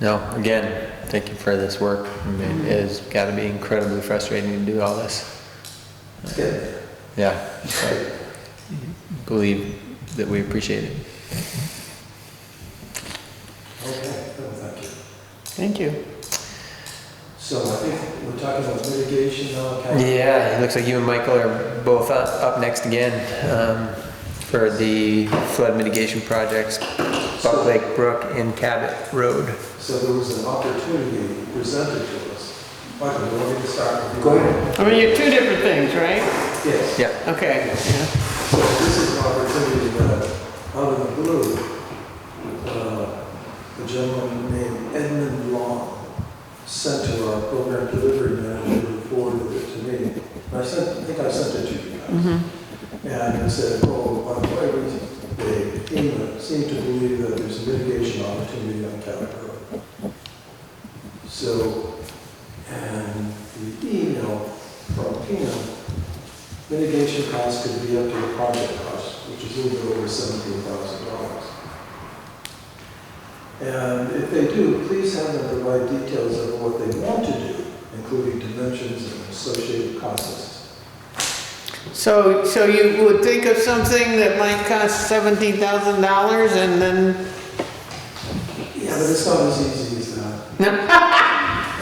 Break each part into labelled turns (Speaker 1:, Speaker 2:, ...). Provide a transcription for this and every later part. Speaker 1: No, again, thank you for this work. I mean, It has got to be incredibly frustrating to do all this.
Speaker 2: It's good.
Speaker 1: Yeah. but Believe that we appreciate it.
Speaker 2: Okay, well, thank you.
Speaker 1: Thank you.
Speaker 2: So I think we're talking about mitigation now, okay?
Speaker 1: Yeah, it looks like you and Michael are both up, up next again, um, for the flood mitigation projects, Buck Lake Brook and Cabot Road.
Speaker 2: So there was an opportunity presented to us. Michael, do you want me to start? with you? Go ahead.
Speaker 3: I mean, you're two different things, right?
Speaker 2: Yes.
Speaker 1: Yeah.
Speaker 3: Okay, yeah.
Speaker 2: So this is an opportunity that, out of the blue, uh, a gentleman named Edmund Long sent to our program delivery manager, who forwarded it to me. And I sent, I think I sent it to you guys. And he said, oh, by the way, we- they seem- seem to believe that there's a mitigation opportunity on Cabot Road. So, and the email from Pino Mitigation costs could be up to the project cost, which is a little bit over seventeen thousand dollars. And if they do, please have them provide details of what they want to do, including dimensions and associated costs.
Speaker 3: So, so you would think of something that might cost seventeen thousand dollars and then,
Speaker 2: Yeah, but it's not as easy as that.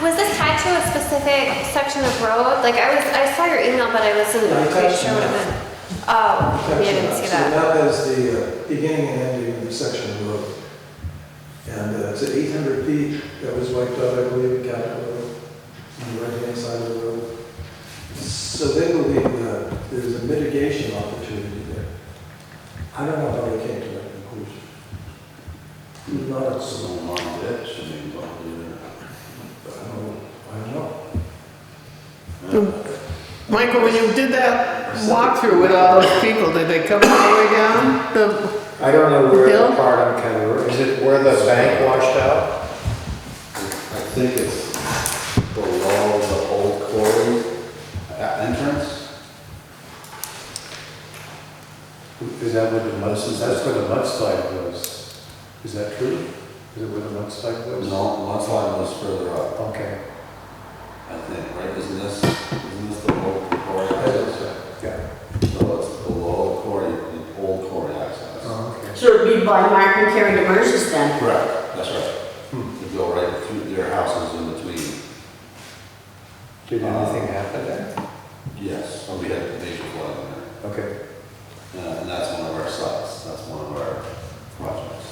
Speaker 4: Was this tied to a specific section of road? Like I was, I saw your email, but I wasn't
Speaker 2: Yeah, I
Speaker 4: quite
Speaker 2: touched
Speaker 4: sure
Speaker 2: on
Speaker 4: what it
Speaker 2: that.
Speaker 4: meant. Oh, maybe I didn't see
Speaker 2: So
Speaker 4: that.
Speaker 2: that is the uh, beginning and ending of the section of road. And uh, it's eight hundred feet that was wiped out, I believe, at Capitol Road, on the right-hand side of the road. So they believe that there's a mitigation opportunity there. I don't know how they came to that conclusion. It's Not a
Speaker 5: So
Speaker 2: small,
Speaker 5: long that should be involved in
Speaker 2: but uh, I don't, I don't know.
Speaker 5: it.
Speaker 3: Michael, when you did that walkthrough with all those people, did they come all the way down? The,
Speaker 6: I don't know where
Speaker 3: Bill?
Speaker 6: the part I'm kind of, is it where the bank washed out?
Speaker 5: I think it's below the old quarry uh, entrance.
Speaker 6: Is that where the mudslide, that's where the mudslide was? Is that true? Is it where the mudslide was?
Speaker 5: No, mudslide was further up,
Speaker 6: Okay,
Speaker 5: I think, right? Isn't this, isn't this the old quarry access?
Speaker 6: yeah,
Speaker 5: So it's below quarry, the old quarry access.
Speaker 6: oh, okay.
Speaker 7: So it'd be by Mark and Karen Demers then?
Speaker 5: Correct, that's right. You go right through their houses in between.
Speaker 6: Did anything happen there?
Speaker 5: Yes, so we had a major flood in there.
Speaker 6: Okay.
Speaker 5: Uh, And that's one of our sites, that's one of our projects.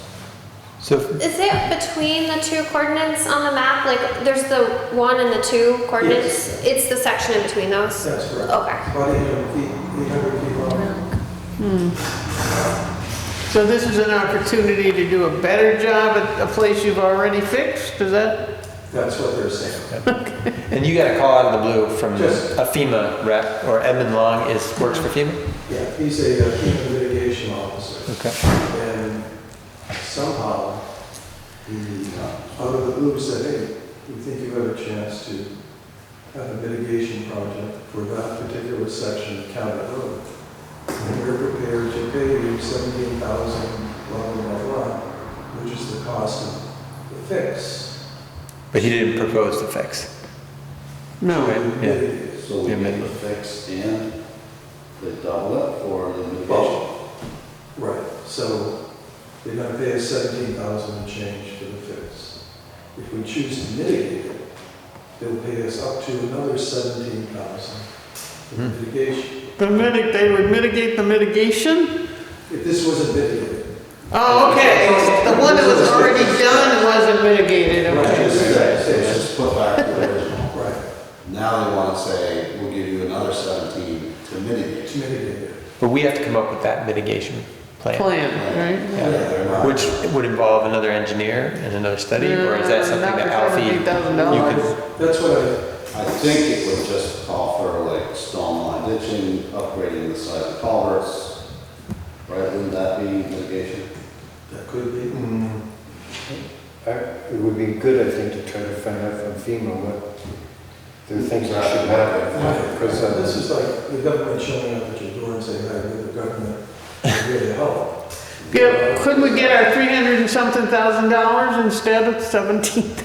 Speaker 1: So,
Speaker 4: Is it between the two coordinates on the map? Like there's the one and the two coordinates? It's the section in between those?
Speaker 2: That's correct.
Speaker 4: Okay.
Speaker 2: About eight hundred feet, eight hundred feet long.
Speaker 3: so this is an opportunity to do a better job at a place you've already fixed, is that?
Speaker 2: That's what they're saying.
Speaker 1: and you got a call out of the blue from
Speaker 2: Just-
Speaker 1: a FEMA rep, or Edmund Long is, works for FEMA?
Speaker 2: Yeah, he's a uh, human mitigation officer.
Speaker 1: Okay.
Speaker 2: And somehow, he, uh, out of the blue, said, hey, we think you have a chance to have a mitigation project for that particular section of Cabot Road. And we're prepared to pay you seventeen thousand, blah, blah, blah, blah, which is the cost of the fix.
Speaker 1: But he didn't propose the fix.
Speaker 3: No.
Speaker 2: to
Speaker 1: yeah.
Speaker 2: mitigate it."
Speaker 5: So we
Speaker 1: Yeah,
Speaker 5: get
Speaker 1: maybe.
Speaker 5: the fix and the double it for the mitigation?
Speaker 2: Well, Right, so they're gonna pay us seventeen thousand and change for the fix. If we choose to mitigate it, they'll pay us up to another seventeen thousand for
Speaker 1: Hmm.
Speaker 2: mitigation.
Speaker 3: The mitig, they would mitigate the mitigation?
Speaker 2: If this wasn't mitigated,
Speaker 3: Oh, okay, the one that was already done wasn't mitigated,
Speaker 2: Right.
Speaker 3: okay.
Speaker 2: just-
Speaker 5: Let's just put back to the original.
Speaker 2: right,
Speaker 5: Now they want to say, we'll give you another 17 to mitigate.
Speaker 2: to mitigate it.
Speaker 1: But we have to come up with that mitigation plan,
Speaker 3: Plan, right?
Speaker 5: Yeah, they're not-
Speaker 1: which would involve another engineer and another study, or is that something that Alfie?
Speaker 3: $17,000.
Speaker 1: you could-
Speaker 2: That's what I,
Speaker 5: I think it would just call for like stone line ditching, upgrading the size of culverts, right? Wouldn't that be mitigation?
Speaker 2: that could be.
Speaker 6: I- Uh, It would be good, I think, to try to find out from FEMA what there are things that should happen. Because
Speaker 2: So This
Speaker 6: uh,
Speaker 2: is like the government showing up at your door and saying, hey, we're the government, we're here to help.
Speaker 3: Yeah, could we get our 300 and something thousand dollars instead of 17?